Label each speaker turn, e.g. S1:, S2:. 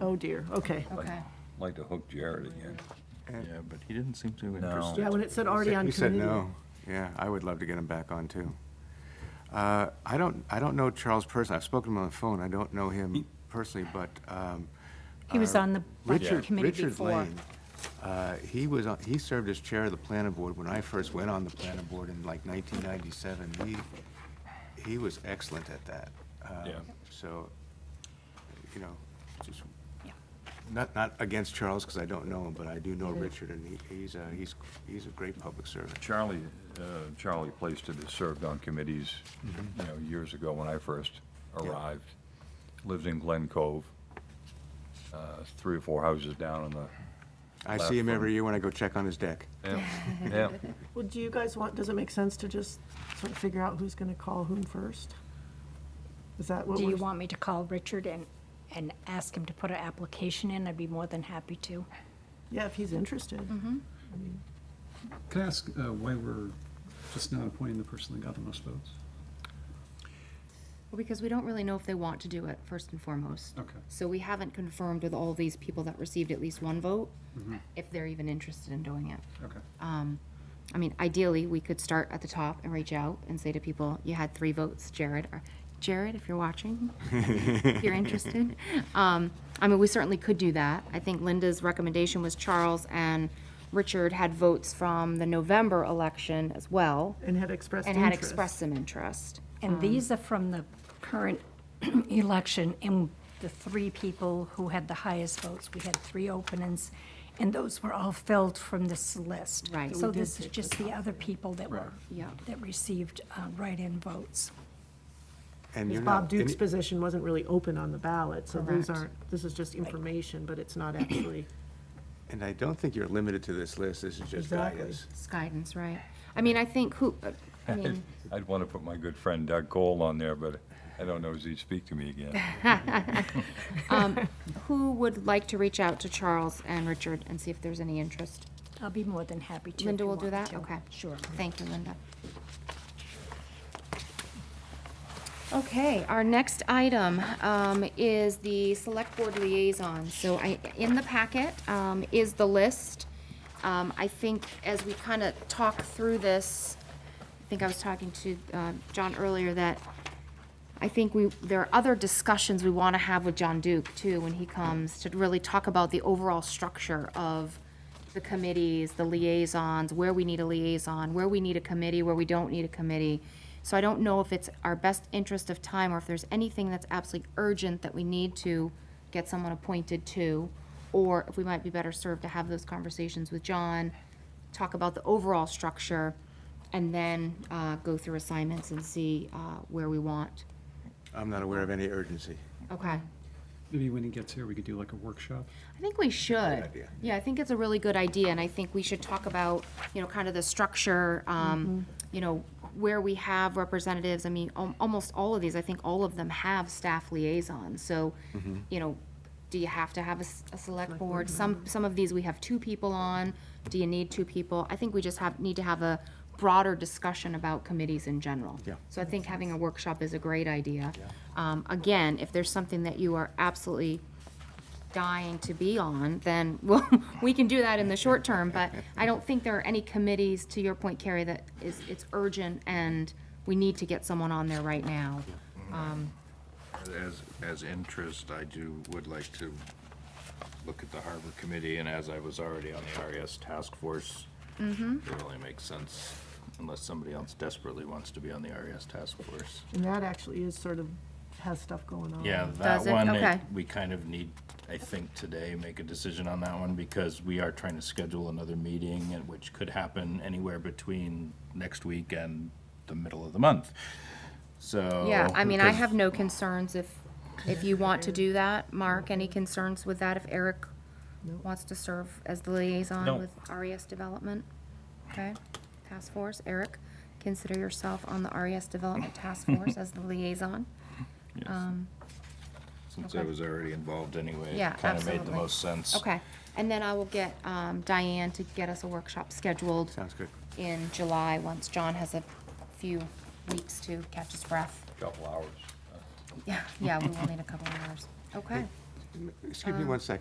S1: Oh dear, okay.
S2: Okay.
S3: Like to hook Jared again.
S4: Yeah, but he didn't seem too
S3: No.
S4: interested.
S1: Yeah, when it said already on
S5: He said
S1: committee.
S5: no. Yeah, I would love to get him back on, too. Uh, I don't, I don't know Charles personally. I've spoken to him on the phone. I don't know him personally, but. um,
S2: He was
S5: uh,
S2: on the budget
S5: Richard-
S2: committee
S5: Richard
S2: before.
S5: Lane, uh, he was, on- he served as chair of the planning board when I first went on the planning board in like 1997. He, he was excellent at that. Um,
S3: Yeah.
S5: So, you know, just,
S2: Yeah.
S5: not, not against Charles, because I don't know him, but I do know Richard, and he- he's, a- he's, he's a great public servant.
S3: Charlie, uh, Charlie Plaisted has served on committees, you know, years ago when I first
S5: Yeah.
S3: arrived. Lives in Glen Cove, uh, three or four houses down on the,
S5: I see him
S3: Laugh
S5: every year when I go check on his deck.
S3: yeah, yeah.
S1: Well, do you guys want, does it make sense to just sort of figure out who's going to call whom first? Is that what
S2: Do
S1: we're?
S2: you want me to call Richard and, and ask him to put an application in? I'd be more than happy to.
S1: Yeah, if he's interested.
S2: Mm-hmm.
S6: Can I ask uh, why we're just not appointing the person that got the most votes?
S7: Well, because we don't really know if they want to do it, first and foremost.
S6: Okay.
S7: So we haven't confirmed with all these people that received at least one vote, if they're even interested in doing it.
S6: Mm-hmm. Okay.
S7: Um, I mean, ideally, we could start at the top and reach out and say to people, you had three votes, Jared, or Jared, if you're watching, if you're interested. Um, I mean, we certainly could do that. I think Linda's recommendation was Charles and Richard had votes from the November election as well,
S1: And had expressed
S7: and
S1: interest.
S7: had expressed some interest.
S2: And these are from the current election, and the three people who had the highest votes, we had three openings, and those were all filled from this list.
S7: Right. So
S2: So
S7: we did
S2: this is just the other people that were,
S7: Yeah.
S2: that received uh, write-in votes.
S5: And you're
S1: Bob
S5: not-
S1: Duke's
S5: and-
S1: position wasn't really open on the ballot, so these
S7: Correct.
S1: aren't, this is just information, but it's not actually.
S5: And I don't think you're limited to this list, this is just
S1: Exactly.
S5: guidance.
S7: It's guidance, right? I mean, I think who, I mean,
S3: I'd want to put my good friend Doug Cole on there, but I don't know if he'd speak to me again.
S7: who would like to reach out to Charles and Richard and see if there's any interest?
S2: I'll be more than happy to. if
S7: Linda
S2: you
S7: will do
S2: want
S7: that?
S2: me to.
S7: Okay.
S2: Sure.
S7: Thank you, Linda. Okay, our next item um, is the Select Board Liaison. So I, in the packet um, is the list. Um, I think as we kind of talk through this, I think I was talking to uh, John earlier that I think we, there are other discussions we want to have with John Duke, too, when he comes, to really talk about the overall structure of the committees, the liaisons, where we need a liaison, where we need a committee, where we don't need a committee. So I don't know if it's our best interest of time, or if there's anything that's absolutely urgent that we need to get someone appointed to, or if we might be better served to have those conversations with John, talk about the overall structure, and then uh, go through assignments and see uh, where we want. Um,
S5: I'm not aware of any urgency.
S7: Okay.
S6: Maybe when he gets here, we could do like a workshop.
S7: I think we should.
S5: idea.
S7: Yeah, I think it's a really good idea, and I think we should talk about, you know, kind of the structure, um, you know, where we have representatives. I mean, al- almost all of these, I think all of them have staff liaisons, so,
S5: Mm-hmm.
S7: you know, do you have to have a, s- a select board? Some, some of these we have two people on. Do you need two people? I think we just have, need to have a broader discussion about committees in general.
S5: Yeah.
S7: So I think having a workshop is a great idea. Um, again, if there's something that you are absolutely dying to be on, then well, we can do that in the short term, but I don't think there are any committees, to your point, Carrie, that is, it's urgent and we need to get someone on there right now.
S4: As, as interest, I do, would like to look at the harbor committee, and as I was already on the RES task force,
S7: Mm-hmm.
S4: it only makes sense unless somebody else desperately wants to be on the RES task force.
S1: And that actually is sort of, has stuff going on.
S4: Yeah,
S7: Does
S4: that
S7: it?
S4: one,
S7: Okay.
S4: it- we kind of need, I think today, make a decision on that one because we are trying to schedule another meeting and which could happen anywhere between next week and the middle of the month. So.
S7: Yeah, I mean, I
S4: because-
S7: have no concerns if, if you want to do that. Mark, any concerns with that if Eric wants to serve as the
S3: No.
S7: liaison with RES Development? Okay, task force, Eric, consider yourself on the RES Development Task Force as the liaison. Um,
S4: Since I
S7: okay.
S4: was already involved anyway.
S7: Yeah,
S4: Kind of made the
S7: absolutely.
S4: most sense.
S7: Okay, and then I will get um, Diane to get us a workshop scheduled
S5: Sounds good.
S7: in July, once John has a few weeks to catch his breath.
S3: Couple hours.
S7: Yeah, yeah, we will need a couple of hours. Okay,
S1: Um,
S5: Excuse me one second.